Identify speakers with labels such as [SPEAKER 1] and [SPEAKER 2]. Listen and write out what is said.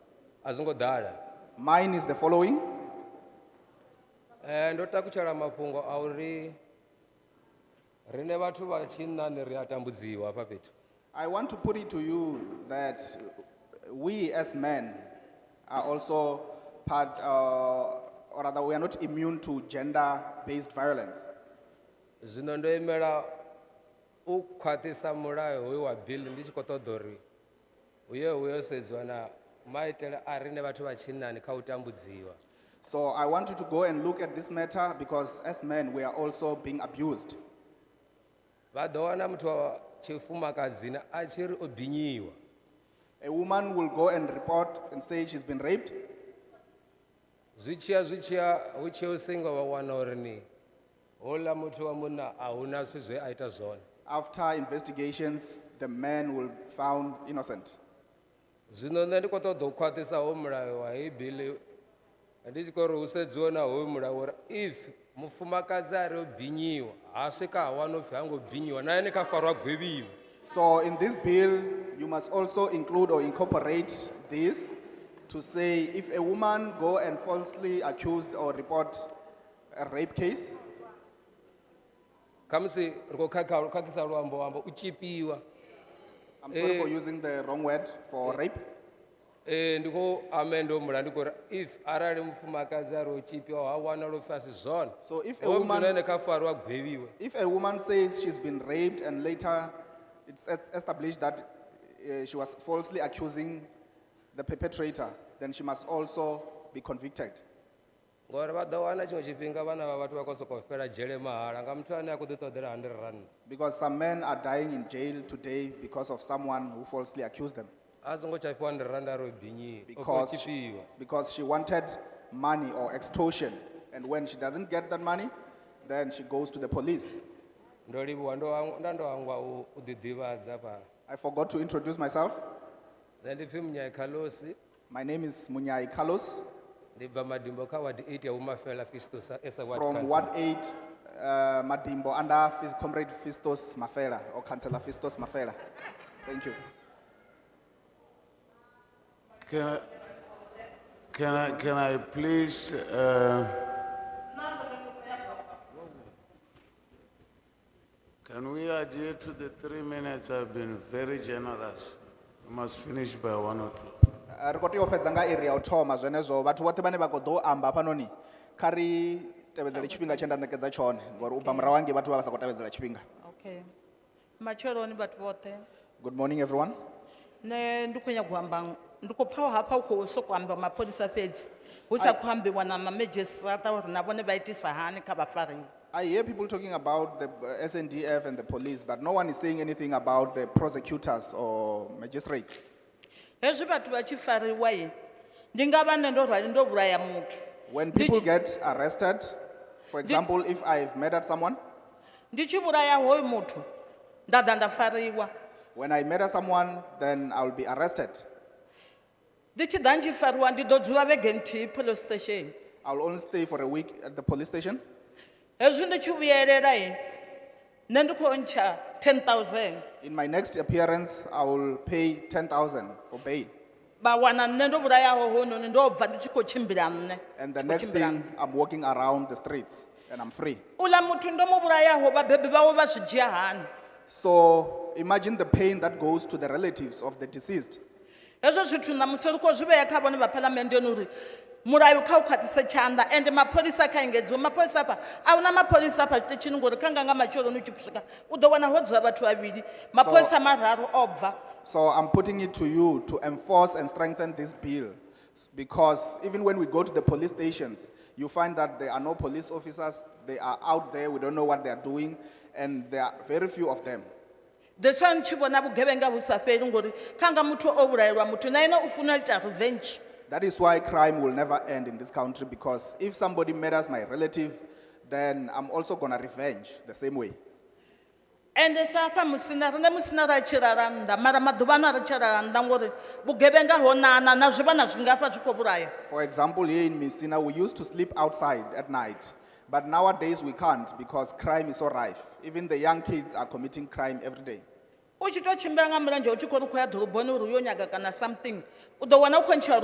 [SPEAKER 1] a zwo ngo ḓala
[SPEAKER 2] Mine is the following.
[SPEAKER 1] Eh, ndo takutshela mafhungo a uri riṋe vhathu vha tshinnani ri a tambudziwa hafha fhethu
[SPEAKER 2] I want to put it to you that we as men are also part, uh, or rather, we are not immune to gender based violence.
[SPEAKER 1] zwino ndo imela u khwaṱhisa mulayo hoyu wa bill ndi tshi khou ṱoḓa uri hu ye hu yo sedziwa na maitele a riṋe vhathu vha tshinnani kha u tambudziwa
[SPEAKER 2] So I want you to go and look at this matter because as men, we are also being abused.
[SPEAKER 1] vha ḓo wana muthu wa tshifumakadzini a tshi ri o binyiwa
[SPEAKER 2] A woman will go and report and say she's been raped.
[SPEAKER 1] zwi tshiya zwi tshiya hu tshiya u singo vha wana uri ni houḽa muthu wa munna a hu na zwithu zwe a ita zwone
[SPEAKER 2] After investigations, the man will be found innocent.
[SPEAKER 1] zwino nṋe ndi khou ṱoḓa u khwaṱhisa hoyu mulayo wa heyi biḽi ndi tshi khou ri hu sedziwe na hoyu mulayo uri if mufumakadzi a ri o binyiwa ha swika ha wana upfhi ha ngo binyiwa na ene kha farwa gwevhiwa
[SPEAKER 2] So in this bill, you must also include or incorporate this to say if a woman go and falsely accused or report a rape case,
[SPEAKER 1] khamusi ri khou khakha- khakhisa luambo wamba u tshipiwa
[SPEAKER 2] I'm sorry for
[SPEAKER 1] Eh.
[SPEAKER 2] using the wrong word for rape.
[SPEAKER 1] ee ndi khou amenda hoyu mulayo ndi khou ri if arali mufumakadzi a ri o tshipiwa ha wanala upfhi a si zwone
[SPEAKER 2] So if a
[SPEAKER 1] hoyu muthu na
[SPEAKER 2] E, woman,
[SPEAKER 1] ene kha farwa gwevhiwe
[SPEAKER 2] if a woman says she's been raped and later it's es- established that uh, she was falsely accusing the perpetrator, then she must also be convicted.
[SPEAKER 1] ngori vha ḓo wana tshiṅwe tshifhinga vhana vha vhathu vha khou sokou fela dzhele mahala nga muthu ane a khou ḓi ṱoḓela hundred rand
[SPEAKER 2] Because some men are dying in jail today because of someone who falsely accused them.
[SPEAKER 1] a songo tsha fhiwa ndi randa ro binyiwa o khou
[SPEAKER 2] because,
[SPEAKER 1] tshipiwa
[SPEAKER 2] because she wanted money or extortion. And when she doesn't get that money, then she goes to the police.
[SPEAKER 1] ndo livhuwa ndo hangwa- nda ndo hangwa u u ḓiḓivhadza fhano
[SPEAKER 2] I forgot to introduce myself.
[SPEAKER 1] nṋe ndi pfhi munyai khalosi
[SPEAKER 2] My name is Munyai Carlos
[SPEAKER 1] ndi bva madimbo kha wadi eight ya vhumafela fistosa esa ward
[SPEAKER 2] from
[SPEAKER 1] council.
[SPEAKER 2] Ward 8, uh, Madimbo, under Fis- Comrade Fistos Mafela or Councillor Fistos Mafela. Thank you.
[SPEAKER 3] Can I, can I, can I please, uh, can we adhere to the three minutes? I've been very generous. I must finish by one o'clock.
[SPEAKER 2] Uh, Ri khou tea u fhedza nga iri ya u thoma zwenezwo vhathu vhoṱhe vhane vha khou ḓo amba hafhanoni kha ri tevhedzele tshifhinga tshe nda ṋekedza tshone ngori u bva murahu hangei vhathu vha vha sa khou tevhedzela tshifhinga.
[SPEAKER 4] Okay. Matsheloni vhathu vhoṱhe.
[SPEAKER 2] Good morning everyone.
[SPEAKER 4] Nṋe ndi khou nyaga u amba ndi khou pfha hafha u khou sokou amba mapholisa fhedzi. Hu sa khou ambiwa na mamedzhisiṱa uri na vhone vha itisa hani kha vhafarisi.
[SPEAKER 2] I hear people talking about the uh, SNDF and the police, but no one is saying anything about the prosecutors or magistrates.
[SPEAKER 4] Hezwi vhathu vha tshi fariwa i ndi nga vha nṋe ndo rali ndo vhulaya muthu.
[SPEAKER 2] When
[SPEAKER 4] Did
[SPEAKER 2] people
[SPEAKER 4] you-
[SPEAKER 2] get arrested, for example, if I've murdered someone,
[SPEAKER 4] Ndi tshi vhulaya hoyo muthu nda ḓa nda fariwa.
[SPEAKER 2] when I murder someone, then I'll be arrested.
[SPEAKER 4] Ndi tshi ḓa ndi fariwa ndi ḓo dzula vhege nthihi police station.
[SPEAKER 2] I'll only stay for a week at the police station.
[SPEAKER 4] Hezwi ndi tshi vhuyelela i nṋe ndi khou ntsha 10000.
[SPEAKER 2] In my next appearance, I will pay 10,000 for bail.
[SPEAKER 4] vha wana nṋe ndo vhulayaho hononi ndo bva ndi tshi khou tshimbila nṋe
[SPEAKER 2] And the
[SPEAKER 4] Ndi khou
[SPEAKER 2] next
[SPEAKER 4] tshimbila
[SPEAKER 2] thing, I'm walking around the streets and I'm free.
[SPEAKER 4] nṋe. uḽa muthu ndo mu vhulayaho vhabebi vhawe vha zwi dzhia hani
[SPEAKER 2] So imagine the pain that goes to the relatives of the deceased.
[SPEAKER 4] hezwo zwithu ṋamusi ri khou zwi vhea kha vhone vha phalamenndeni uri mulayo kha u khwaṱhise tshanḓa ende mapholisa kha engedziwe mapholisa hafha a hu na mapholisa hafha zwiṱitshini ngori kha nga nga matsheloni u tshi swika u ḓo wana ho dzula vhathu vhavhili mapholisa mararu o bva
[SPEAKER 2] So I'm putting it to you to enforce and strengthen this bill. s- Because even when we go to the police stations, you find that there are no police officers, they are out there, we don't know what they are doing, and there are very few of them.
[SPEAKER 4] deswa ni tshi vhona vhugevhenga vhu sa fheli ngori kha nga muthu o vhulaelwa muthu na ene u funa u ita revenge
[SPEAKER 2] That is why crime will never end in this country, because if somebody murders my relative, then I'm also gonna revenge the same way.
[SPEAKER 4] ende sa hafha musina rine musina ra tshi lala nnḓa mara maḓuvhano a ri tshi lala nnḓa ngori vhugevhenga ho nana na zwivhana zwingafha zwi khou vhulaya
[SPEAKER 2] For example, here in Messina, we used to sleep outside at night, but nowadays we can't because crime is so rife. Even the young kids are committing crime every day.
[SPEAKER 4] u tshi tou tshimbila nga mulenzhe u tshi khou ri khou ya ḓoroboni uri u yo nyaga kana something u ḓo wana u khou ntsha